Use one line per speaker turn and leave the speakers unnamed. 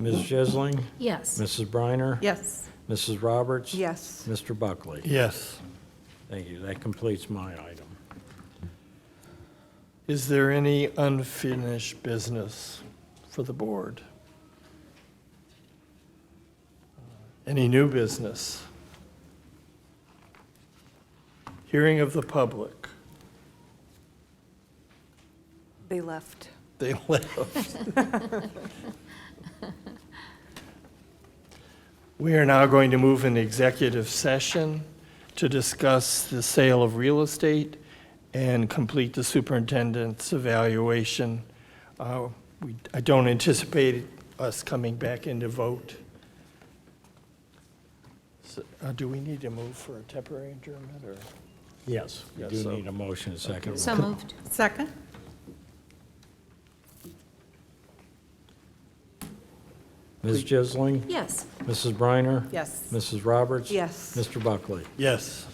Ms. Jesling,
Yes.
Mrs. Briner,
Yes.
Mrs. Roberts.
Yes.
Mr. Buckley.
Yes.
Thank you. That completes my item.
Is there any unfinished business for the board? Uh, Any new business? Hearing of the public.
They left.
They left. We are now going to move into executive session to discuss the sale of real estate and complete the superintendent's evaluation. Uh, we- I don't anticipate us coming back into vote. So, uh, Do we need to move for a temporary adjournment, or?
Yes. We
Yes,
do
so-
need a motion, and second.
So moved.
Second?
Ms. Jisling,
Yes.
Mrs. Briner.
Yes.
Mrs. Roberts.
Yes.
Mr. Buckley.
Yes.